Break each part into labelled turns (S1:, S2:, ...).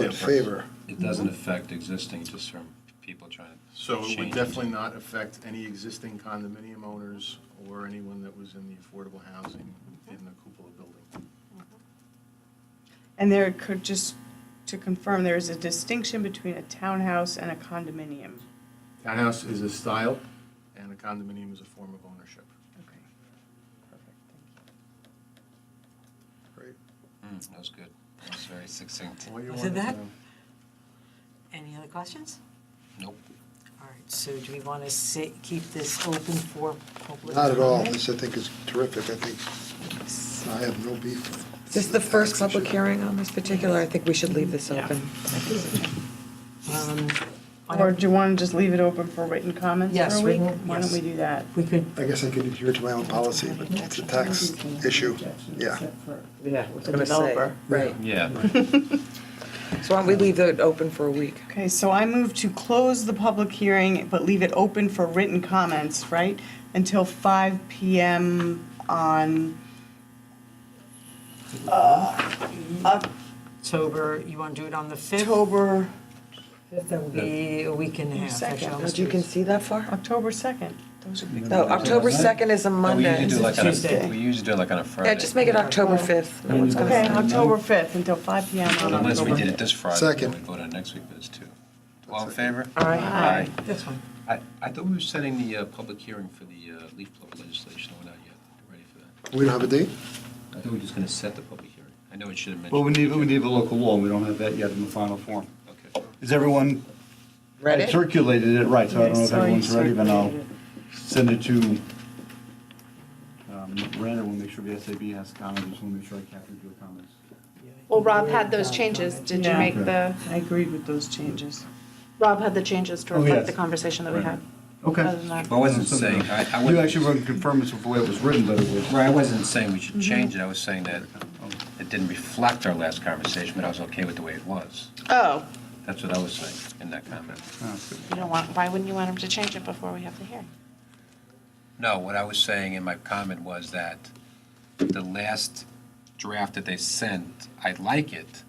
S1: in favor.
S2: It doesn't affect existing, just from people trying
S3: So it would
S2: Change.
S3: definitely not affect any existing condominium owners or anyone that was in the affordable housing in the cupola building.
S4: And there could, just to confirm, there is a distinction between a townhouse and a condominium.
S3: Townhouse is a style, and a condominium is a form of ownership.
S4: Okay. Perfect, thank
S1: Great.
S2: to, hmm, that was good. That was very succinct.
S3: All you
S5: Is it
S3: wanted to
S5: that?
S3: know.
S5: Any other questions?
S2: Nope.
S5: All right, so do we want to keep this open for public?
S1: Not at all.
S5: comment?
S1: This, I think, is terrific. I think I have no beef with it.
S6: This is the first public hearing on this particular, I think we should leave this
S5: Yeah.
S6: open.
S5: Um,
S4: you. Or do you want to just leave it open for written comments
S5: Yes,
S4: for a week?
S5: written-
S4: Why don't
S5: yes.
S4: we do that?
S5: We could,
S1: I guess I could adhere to my own policy, but it's a tax issue. Yeah.
S6: Yeah, I was
S5: gonna say. Developer.
S6: Right.
S2: Yeah.
S6: So why don't we leave it open for a week?
S4: Okay, so I move to close the public hearing, but leave it open for written comments, right? Until 5 PM on
S5: October, you want to do it on the 5th?
S4: October,
S5: That would be a week and a half.
S4: Second.
S5: actually,
S6: Now,
S5: almost
S6: You
S5: two
S6: can
S5: weeks.
S6: see that far?
S4: October 2nd.
S6: No, October 2nd is a
S2: No, We
S6: Monday.
S2: usually do like on
S5: Tuesday.
S2: a, we usually do like on a Friday.
S6: Yeah, just make it October 5th. No one's gonna
S4: Okay,
S6: say.
S4: October 5th until 5 PM on
S2: Unless we
S4: October
S2: did it
S4: 5th.
S2: this Friday, then
S1: Second.
S2: we vote on next week, but it's two. All in favor?
S5: All right.
S2: Aye.
S5: This one.
S2: I, I thought we were setting the uh, public hearing for the uh, leaf blower legislation. We're not yet ready for that.
S1: We don't have a date?
S2: I thought we were just going to set the public hearing. I know it should have mentioned.
S7: Well, we need, we need the local law, we don't have that yet in the final form.
S2: Okay.
S7: Is everyone? I
S6: Ready?
S7: Circulated it, right, so I don't know if
S4: Yeah, I saw you
S7: everyone's ready, but I'll
S4: circulated
S7: send it to um, Miranda, we'll make sure the SAB has comments, just want to make sure I captured your comments.
S8: Well, Rob had those changes. Did you
S4: Yeah.
S8: make the,
S4: I agreed with those changes.
S8: Rob had the changes to
S7: Oh,
S8: reflect
S7: yes.
S8: the conversation that we had. Other than
S7: Okay.
S8: that-
S2: Well, I wasn't saying, I, I
S7: You
S2: wasn't.
S7: actually wouldn't confirm this with the way it was written, but it was. Oh,
S2: Right, I wasn't saying we
S6: Mm-hmm.
S2: should change it, I was saying that it didn't reflect our last conversation, but I was okay with the way it was.
S8: Oh,
S2: That's what I was saying in that comment.
S7: Oh, good.
S8: you don't want, why wouldn't you want him to change it before we have the hearing?
S2: No, what I was saying in my comment was that the last draft that they sent, I like it,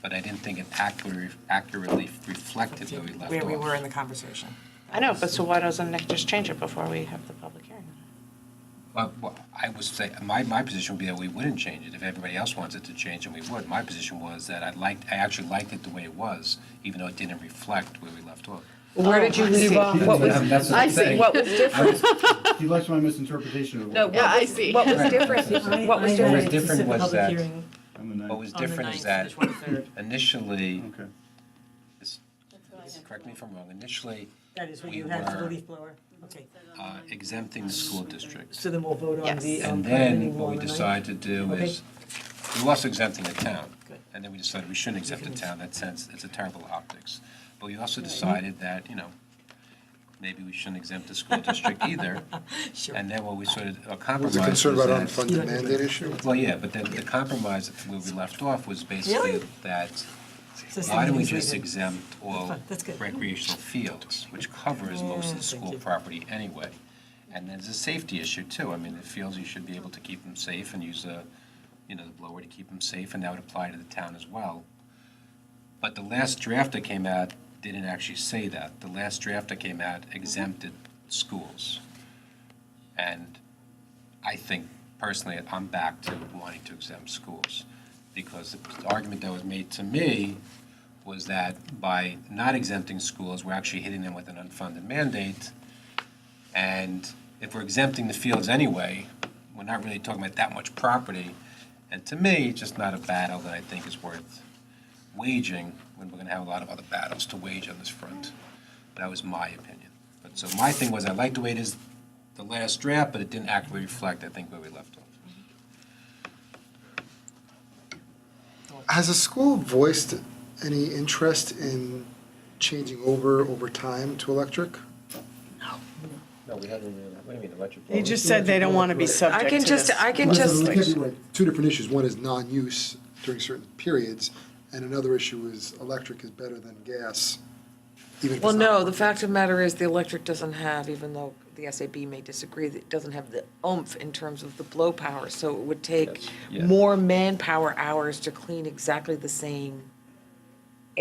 S2: but I didn't think it accurately, accurately reflected where we left off.
S5: Where we were in the conversation.
S8: I know, but so why doesn't Nick just change it before we have the public hearing?
S2: Well, well, I was saying, my, my position would be that we wouldn't change it. If everybody else wants it to change, then we would. My position was that I liked, I actually liked it the way it was, even though it didn't reflect where we left off.
S6: Where did you leave off? What was,
S7: That's what
S2: I
S7: I'm
S2: see,
S7: saying.
S6: what was
S7: I
S6: different?
S7: was- He likes my misinterpretation of.
S6: No,
S8: I see.
S6: What was different? What was
S2: What was
S6: different?
S2: different was that,
S7: I'm the ninth.
S2: what was different is that initially,
S7: Okay.
S2: this- correct me if I'm wrong, initially
S5: That is what
S2: We
S5: you had for the
S2: were-
S5: leaf blower? Okay.
S2: uh, exempting the school districts.
S5: So then we'll vote on
S8: Yes.
S5: the. um,
S2: And then
S5: condominium law
S2: what we
S5: on the ninth?
S2: decided to do
S5: Okay.
S2: is, we lost exempting the town.
S5: Good.
S2: And then we decided we shouldn't exempt the
S5: shouldn't.
S2: town, that sense, it's a terrible optics. But we also decided that, you know, maybe we shouldn't exempt the school district either.
S5: Sure.
S2: And then what we sort of, a
S1: Was
S2: compromise
S1: it concerned about
S2: was that-
S1: unfunded mandate issue?
S2: Well, yeah, but then the compromise where we left off was basically
S5: Really?
S2: that,
S5: So
S2: why don't we
S5: something's
S2: just
S5: written.
S2: exempt all
S5: That's good.
S2: recreational fields, which covers most of
S5: Yeah,
S2: the
S5: thank
S2: school
S5: you.
S2: property anyway? And there's a safety issue too. I mean, the fields, you should be able to keep them safe and use a, you know, the blower to keep them safe, and that would apply to the town as well. But the last draft that came out didn't actually say that. The last draft that came
S5: Mm-hmm.
S2: out exempted schools. And I think personally, I'm back to wanting to exempt schools. Because the argument that was made to me was that by not exempting schools, we're actually hitting them with an unfunded mandate. And if we're exempting the fields anyway, we're not really talking about that much property. And to me, it's just not a battle that I think is worth waging when we're going to have a lot of other battles to wage on this front. That was my opinion. But so my thing was, I like the way it is, the last draft, but it didn't accurately reflect, I think, where we left off.
S1: Has the school voiced any interest in changing over, over time to electric?
S2: No, we haven't really, what do you mean, electric?
S4: They just said they don't want to be subject
S6: I
S4: to
S6: can just,
S4: this.
S6: I can
S1: Listen,
S6: just,
S1: look at it like Two different issues. One is non-use during certain periods, and another issue is electric is better than gas, even if it's
S6: well,
S1: not
S6: no, the
S1: working.
S6: fact of the matter is the electric doesn't have, even though the SAB may disagree, it doesn't have the oomph in terms of the blow power. So it would take
S2: Yes, yeah.
S6: more manpower hours to clean exactly the same